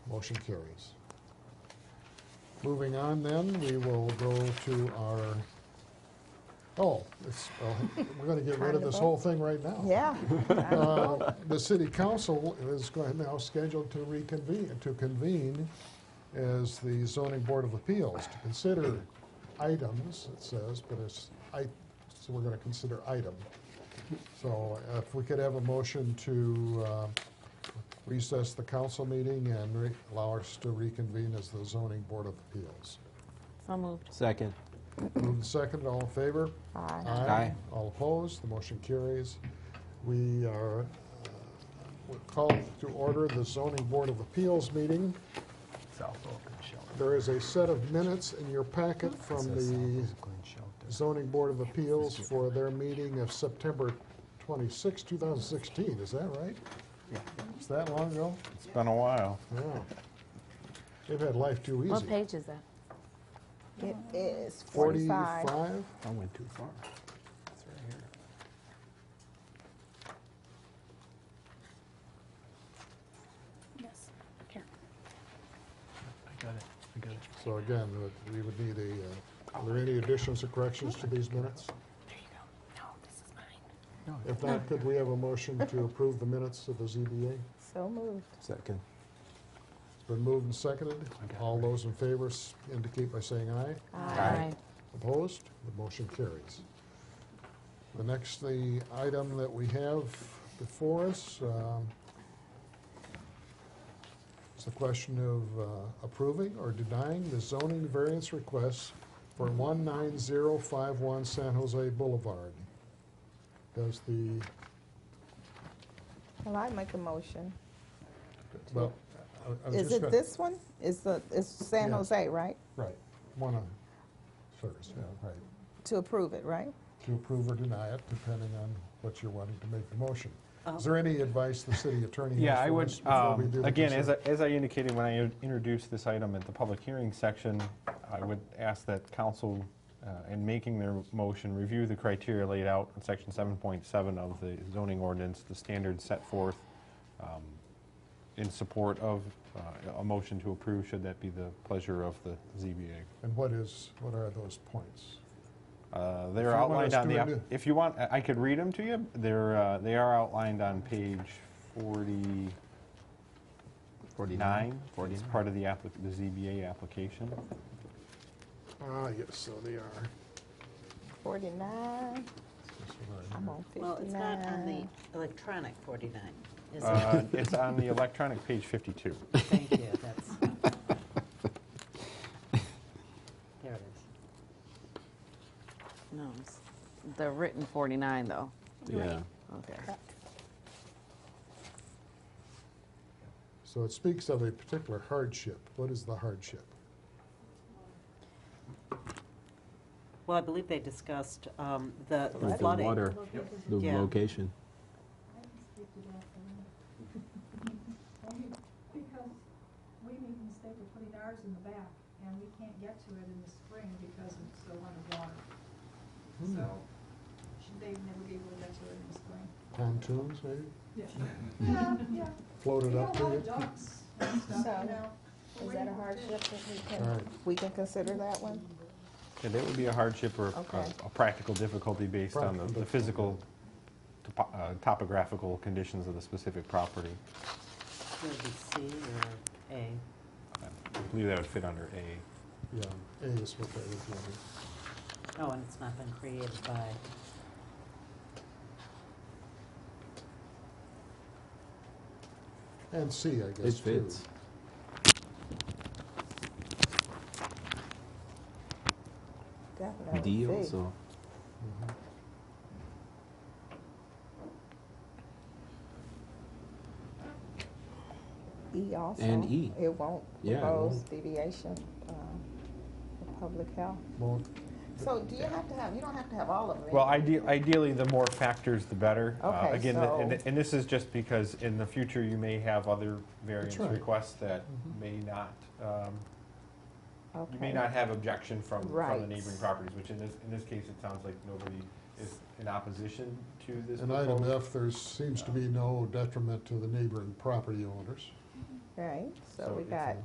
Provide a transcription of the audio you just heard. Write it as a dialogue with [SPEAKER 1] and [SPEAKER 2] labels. [SPEAKER 1] Motion carries. Moving on then, we will go to our, oh, it's, oh, we're gonna get rid of this whole thing right now.
[SPEAKER 2] Yeah.
[SPEAKER 1] Uh, The city council is going now scheduled to reconvene, to convene as the zoning board of appeals to consider items, it says, but it's, I, so we're gonna consider item. So if we could have a motion to uh, recess the council meeting and re- allow us to reconvene as the zoning board of appeals.
[SPEAKER 2] So moved.
[SPEAKER 3] Second.
[SPEAKER 1] Moved and seconded, all in favor?
[SPEAKER 2] Aye.
[SPEAKER 3] Aye.
[SPEAKER 1] All opposed, the motion carries. We are, uh, we're called to order the zoning board of appeals meeting.
[SPEAKER 4] South Oakland Shelter.
[SPEAKER 1] There is a set of minutes in your packet from the zoning board of appeals for their meeting of September 26, 2016, is that right? Is that long ago?
[SPEAKER 5] It's been a while.
[SPEAKER 1] Yeah. They've had life too easy.
[SPEAKER 2] What page is that?
[SPEAKER 4] It is 45.
[SPEAKER 1] 45?
[SPEAKER 4] I went too far. It's right here.
[SPEAKER 6] Yes, here.
[SPEAKER 4] I got it, I got it.
[SPEAKER 1] So again, we would need a, uh, are there any additions or corrections to these minutes?
[SPEAKER 6] There you go. No, this is mine.
[SPEAKER 4] No, it's
[SPEAKER 1] If not, could we have a motion to approve the minutes of the ZBA?
[SPEAKER 2] So moved.
[SPEAKER 3] Second.
[SPEAKER 1] It's been moved and seconded. All those in favor s- indicate by saying aye.
[SPEAKER 2] Aye.
[SPEAKER 1] Opposed? The motion carries. The next, the item that we have before us, um, is the question of uh, approving or denying the zoning variance request for 19051 San Jose Boulevard. Does the,
[SPEAKER 7] Well, I make a motion.
[SPEAKER 1] well, I I was just
[SPEAKER 7] Is it
[SPEAKER 1] gonna-
[SPEAKER 7] this one? Is the, it's San
[SPEAKER 1] Yeah.
[SPEAKER 7] Jose, right?
[SPEAKER 1] Right, one of, first, yeah, right.
[SPEAKER 7] To approve it, right?
[SPEAKER 1] To approve or deny it, depending on what you're wanting to make the motion. Is there any advice the city attorney has
[SPEAKER 5] Yeah, I
[SPEAKER 1] for
[SPEAKER 5] would,
[SPEAKER 1] us before we
[SPEAKER 5] um,
[SPEAKER 1] do the
[SPEAKER 5] again, as I,
[SPEAKER 1] consent?
[SPEAKER 5] as I indicated when I in- introduced this item at the public hearing section, I would ask that council, uh, in making their motion, review the criteria laid out in section 7.7 of the zoning ordinance, the standards set forth um, in support of uh, a motion to approve, should that be the pleasure of the ZBA.
[SPEAKER 1] And what is, what are those points?
[SPEAKER 5] Uh,
[SPEAKER 1] If you
[SPEAKER 5] They're
[SPEAKER 1] want
[SPEAKER 5] outlined
[SPEAKER 1] us
[SPEAKER 5] on
[SPEAKER 1] to
[SPEAKER 5] the, app-
[SPEAKER 1] renew-
[SPEAKER 5] if you want, I I could read them to you. They're, uh, they are outlined on page 49. It's part of the applic, the ZBA application.
[SPEAKER 1] Ah, yes, so they are.
[SPEAKER 7] Forty-nine, I'm on
[SPEAKER 8] Well, it's not on the
[SPEAKER 7] fifty-nine.
[SPEAKER 8] electronic 49, is it?
[SPEAKER 5] Uh, It's on the electronic page 52.
[SPEAKER 8] Thank you, that's... There it is.
[SPEAKER 2] No, it's the written 49, though.
[SPEAKER 5] Yeah.
[SPEAKER 2] Okay.
[SPEAKER 1] So it speaks of a particular hardship. What is the hardship?
[SPEAKER 8] Well, I believe they discussed um, the the
[SPEAKER 3] With the
[SPEAKER 8] flooding.
[SPEAKER 3] water, the
[SPEAKER 8] Yeah.
[SPEAKER 3] location.
[SPEAKER 9] Only because we made the mistake of putting ours in the back, and we can't get to it in the spring because it's so underwater. So, should they never be able to get to it in the spring?
[SPEAKER 1] Pontoons, maybe?
[SPEAKER 9] Yeah. Yeah, yeah.
[SPEAKER 1] Floated
[SPEAKER 9] We
[SPEAKER 1] up
[SPEAKER 9] got
[SPEAKER 1] to
[SPEAKER 9] a lot
[SPEAKER 1] you?
[SPEAKER 9] of ducks and stuff,
[SPEAKER 7] So,
[SPEAKER 9] you know. but
[SPEAKER 7] Is that
[SPEAKER 9] what do
[SPEAKER 7] a
[SPEAKER 9] you do?
[SPEAKER 7] hardship that we
[SPEAKER 1] All
[SPEAKER 7] can,
[SPEAKER 1] right.
[SPEAKER 7] we can consider that one?
[SPEAKER 5] Yeah, that would be a hardship or a-
[SPEAKER 7] Okay.
[SPEAKER 5] a practical difficulty based on the-
[SPEAKER 1] Practical
[SPEAKER 5] the physical, topo- uh, topographical conditions of the specific property.
[SPEAKER 8] Would it be C or A?
[SPEAKER 5] I believe that would fit under A.
[SPEAKER 1] Yeah, A is what that is. yeah.
[SPEAKER 8] Oh, and it's not been created by,
[SPEAKER 1] And C, I guess, too.
[SPEAKER 3] It fits.
[SPEAKER 7] Definitely.
[SPEAKER 3] D
[SPEAKER 7] big.
[SPEAKER 3] also.
[SPEAKER 1] Mhm.
[SPEAKER 7] E also.
[SPEAKER 3] And E.
[SPEAKER 7] It won't
[SPEAKER 3] Yeah, it
[SPEAKER 7] propose
[SPEAKER 3] won't.
[SPEAKER 7] deviation uh, for public health.
[SPEAKER 1] Well,
[SPEAKER 7] So do you have to have, you don't have to have all of them.
[SPEAKER 5] Well, ide- ideally, the more factors, the better. Uh,
[SPEAKER 7] Okay,
[SPEAKER 5] Again, th- and
[SPEAKER 7] so-
[SPEAKER 5] th- and this is just because in the future, you may have other variance
[SPEAKER 1] right.
[SPEAKER 5] requests that may not, um, you may
[SPEAKER 7] Okay.
[SPEAKER 5] not have objection from, from the
[SPEAKER 7] Right.
[SPEAKER 5] neighboring properties, which in this, in this case, it sounds like nobody is in opposition to this
[SPEAKER 1] In item
[SPEAKER 5] proposal.
[SPEAKER 1] F, there seems to be no detriment to the neighboring property owners.
[SPEAKER 7] right? So
[SPEAKER 5] So
[SPEAKER 7] we
[SPEAKER 5] it's
[SPEAKER 7] got